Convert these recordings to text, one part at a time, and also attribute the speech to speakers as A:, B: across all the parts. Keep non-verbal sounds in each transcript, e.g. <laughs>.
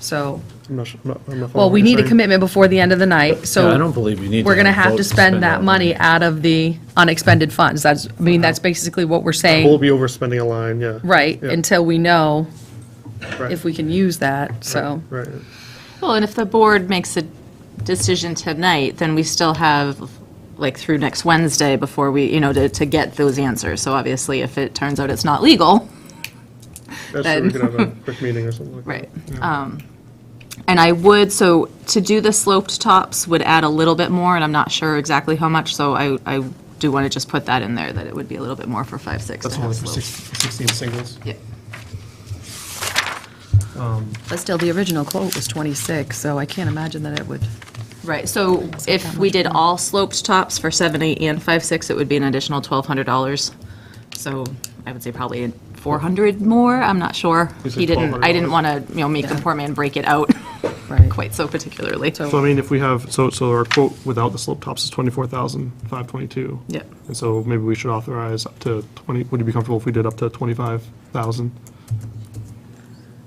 A: So,
B: I'm not, su- I'm not- I'm not
A: well,
B: following
A: we
B: what you're
A: need a
B: saying.
A: commitment before the end of the night, so.
C: Yeah, I don't believe we need
A: We're
C: to
A: going to have
C: vote
A: to
C: to
A: spend
C: spend
A: that
C: that
A: money
C: money. Uh-huh.
A: out of the unexpended funds. That's, I mean, that's basically what we're
B: We'll
A: saying,
B: be overspending a line, yeah.
A: right,
B: Yeah,
A: until we know <laughs>
B: right,
A: if we can use that, so.
B: Right,
D: Well, and if the board makes a decision tonight, then we still have, like, through next Wednesday before we, you know, to, to get those answers. So obviously, if it turns out it's not legal,
B: that's true, we
D: Then-
B: could
A: <laughs>
B: have a quick meeting or something like that.
D: Right. Um, And I would, so to do the sloped tops would add a little bit more, and I'm not sure exactly how much, so I, I do want to just put that in there, that it would be a little bit more for five, six to
B: That's
D: have
B: only for six-
D: sloped.
B: 16 singles.
D: Yeah.
A: But still, the original quote was 26, so I can't imagine that it would.
D: Right, so if we did all sloped tops for seven, eight, and five, six, it would be an additional twelve hundred dollars. So I would say probably four hundred more, I'm not sure.
B: You said
D: He didn't, I didn't
B: $1,200.
D: want to, you know, make the
A: Yeah.
D: poor man break it out <laughs>
A: Right.
D: quite so particularly.
A: So-
B: So I mean, if we have, so, so our quote without the slope tops is 24,522.
D: Yep.
B: And so maybe we should authorize up to 20, would you be comfortable if we did up to 25,000?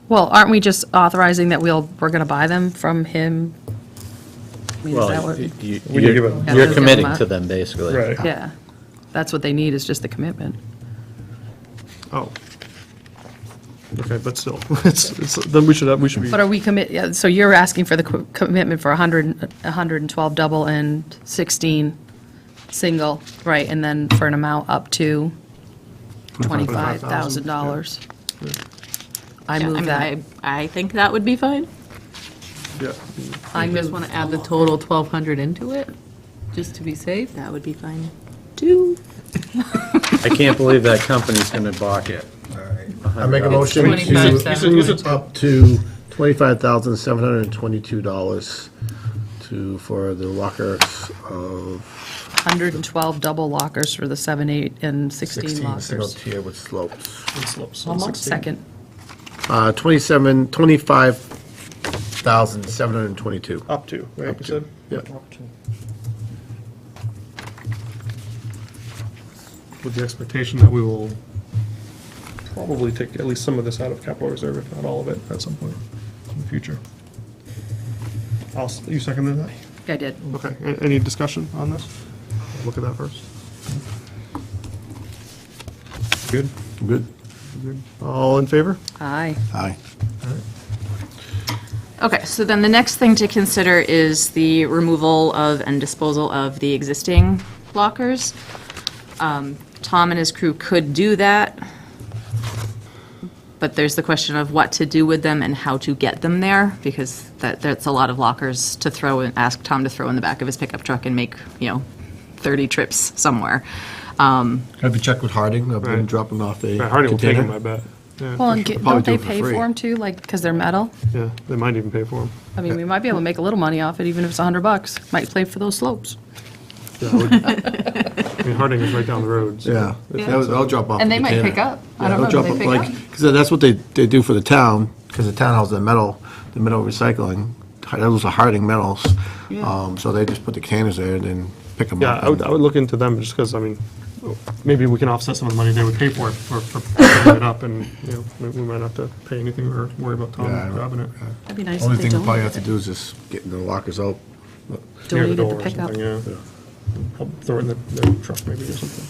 A: Well, aren't we just authorizing that we'll, we're going to buy them from him? I mean, is that
C: Well,
A: what?
C: you- you-
B: We can give
C: you're
B: it-
A: Yeah,
C: you're
A: give them
C: committing
A: up.
C: to them, basically.
A: Yeah, that's what they need, is just the commitment.
B: Oh. Okay, but still, <laughs> it's, it's, then we should, have- we should be,
A: But are we commit, yeah, so you're asking for the co- commitment for 100, 112 double and 16 single, right, and then for an amount up to
B: $25,000,
A: $25,000? I
D: Yeah, I
A: move
D: mean,
A: that.
D: I, I think that would be fine.
B: yeah,
A: I
E: You just
A: move,
E: want to add the total 1,200 into it, just to be safe?
D: That would be fine, too.
C: I can't believe that company's going to balk it.
F: I make a motion
E: It's 25,700.
F: to approve up to twenty-five thousand, seven hundred and twenty-two dollars to, for the lockers of
A: 112 double lockers for the 7, 8, and 16
F: sixteen single
A: lockers.
F: tier with slopes.
B: it slopes.
A: Second,
F: Uh, twenty-seven, twenty-five thousand, seven hundred and twenty-two.
B: Up to, right, you said?
F: Yep.
B: With the expectation that we will probably take at least some of this out of capital reserve, if not all of it, at some point in the future. I'll, s- you seconded that?
A: I did.
B: Okay, a- any discussion on this? Look at that first. Good?
F: Good.
B: All in favor?
A: Aye.
F: Aye.
D: Okay, so then the next thing to consider is the removal of and disposal of the existing lockers. Um, Tom and his crew could do that, but there's the question of what to do with them and how to get them there, because that, that's a lot of lockers to throw and ask Tom to throw in the back of his pickup truck and make, you know, 30 trips somewhere. Um,
F: Have you checked with Harding? I've been
B: Right.
F: dropping off a
B: Yeah, Harding will take them, I
F: container.
B: bet. Yeah,
A: Well, and get-
F: probably
A: don't they
F: do it for
A: pay for
F: free.
A: them too, like, because they're metal?
B: yeah, they might even pay for them.
A: I mean, we might be able to make a little money off it, even if it's 100 bucks. Might play for those slopes.
B: I mean, Harding is right down the road, so.
F: Yeah, that was- I'll drop off.
E: And
F: a
E: they might
F: container.
E: pick up. I
F: Yeah,
E: don't
F: they'll
E: know, do
F: drop
E: they
F: up,
E: pick
F: like- 'cause that's what they, they do for the town, because the town has the metal, the metal recycling, those are Harding metals. Um, so they just put the containers there and then pick them
B: Yeah,
F: up.
B: I would, I would look into them, just because, I mean, maybe we can offset some of the money they would pay for it, for, for picking it up, and, you know, we we might not have to pay anything or worry about Tom
F: Yeah, I don't-
B: grabbing it.
A: That'd be nice
F: Only
A: if they
F: thing we probably have to
A: donated it.
F: do is just getting the lockers out.
B: Near the
A: Donated
B: door
A: the
B: or
A: pickup.
B: something, yeah. Help Throw it in the, the truck maybe or something.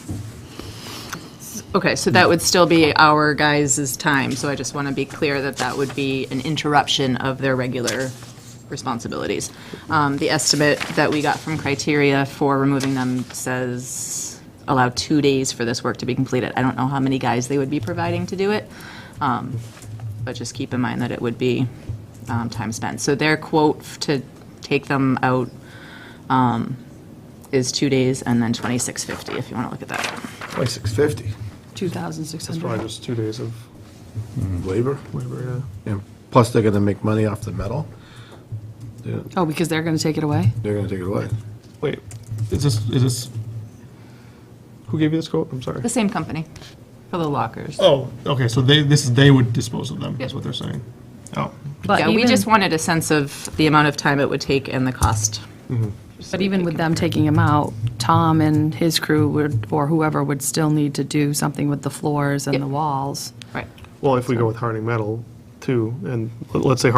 D: Okay, so that would still be our guys' time, so I just want to be clear that that would be an interruption of their regular responsibilities. Um, The estimate that we got from criteria for removing them says allow two days for this work to be completed. I don't know how many guys they would be providing to do it, um, but just keep in mind that it would be um, time spent. So their quote to take them out um, is two days and then 2650, if you want to look at that.
F: Twenty-six fifty.
B: It's probably
A: 2,600.
B: just two days of
F: Labor,
B: labor,
F: and plus they're gonna make money off the metal. They're,
A: Oh, because they're going to take it away?
F: they're gonna take it away.
B: yeah. Wait, is this, is this, who gave you this quote? I'm sorry.
D: The same company.
E: For the lockers.
B: Oh, okay, so they, this, is they would dispose of them, is what they're saying. Oh,
A: But
D: Yeah, we
A: even-
D: just wanted a sense of the amount of time it would take and the cost.
A: But even with them taking him out, Tom and his crew would, or whoever would still need to do something with the floors and
D: Yeah.
A: the walls.
D: Right.
B: well, if we go with Harding Metal, too, and let's say